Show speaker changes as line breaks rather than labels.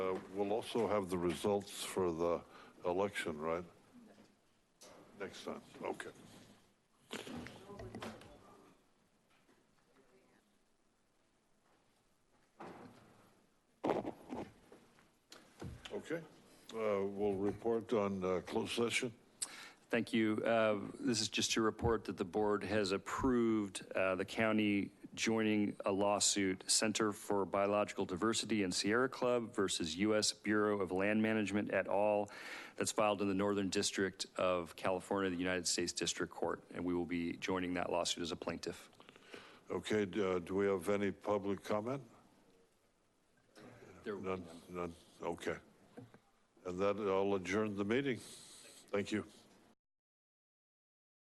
also have the results for the election, right? Next time, okay. Okay, uh, we'll report on uh, closed session.
Thank you. Uh, This is just to report that the board has approved uh, the county joining a lawsuit, Center for Biological Diversity and Sierra Club versus U.S. Bureau of Land Management et al. That's filed in the Northern District of California, the United States District Court, and we will be joining that lawsuit as a plaintiff.
Okay, d- uh, do we have any public comment?
There will be
None, none, okay. And that, I'll adjourn the meeting. Thank you.